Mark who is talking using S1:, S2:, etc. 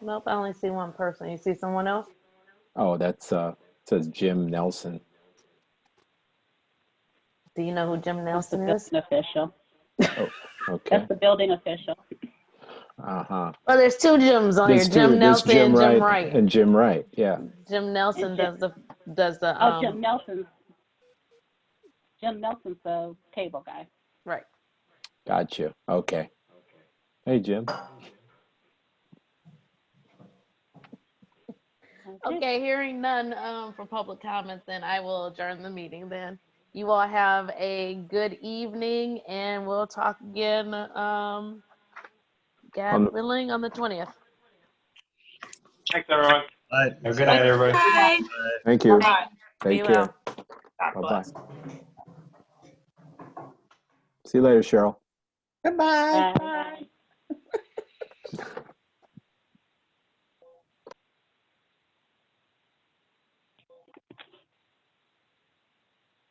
S1: Nope, I only see one person. You see someone else?
S2: Oh, that's uh says Jim Nelson.
S1: Do you know who Jim
S3: That's the
S1: Nelson is?
S3: building official.
S2: Okay.
S3: That's the building official.
S2: Uh huh.
S1: Well, there's two Jims on here.
S2: There's two.
S1: Oh, Jim
S2: There's
S1: Nelson and Jim Wright.
S2: and Jim Wright. Yeah.
S1: Jim Nelson
S3: And
S1: does
S3: Jim-
S1: the, does the,
S3: Oh, Jim
S1: um,
S3: Nelson's, Jim Nelson's the cable guy.
S1: right.
S2: Got you. Okay. Hey, Jim.
S1: Okay, hearing none um, for public comments, then I will adjourn the meeting then. You all have a good evening and we'll talk again, um,
S2: On
S1: God
S2: the-
S1: willing, on the twentieth.
S4: Thanks, everyone.
S5: Bye.
S4: Have a good night, everybody.
S2: Thank you.
S1: Be
S2: Take
S1: well.
S2: care. Bye bye. See you later, Cheryl.
S6: Goodbye.
S3: Bye.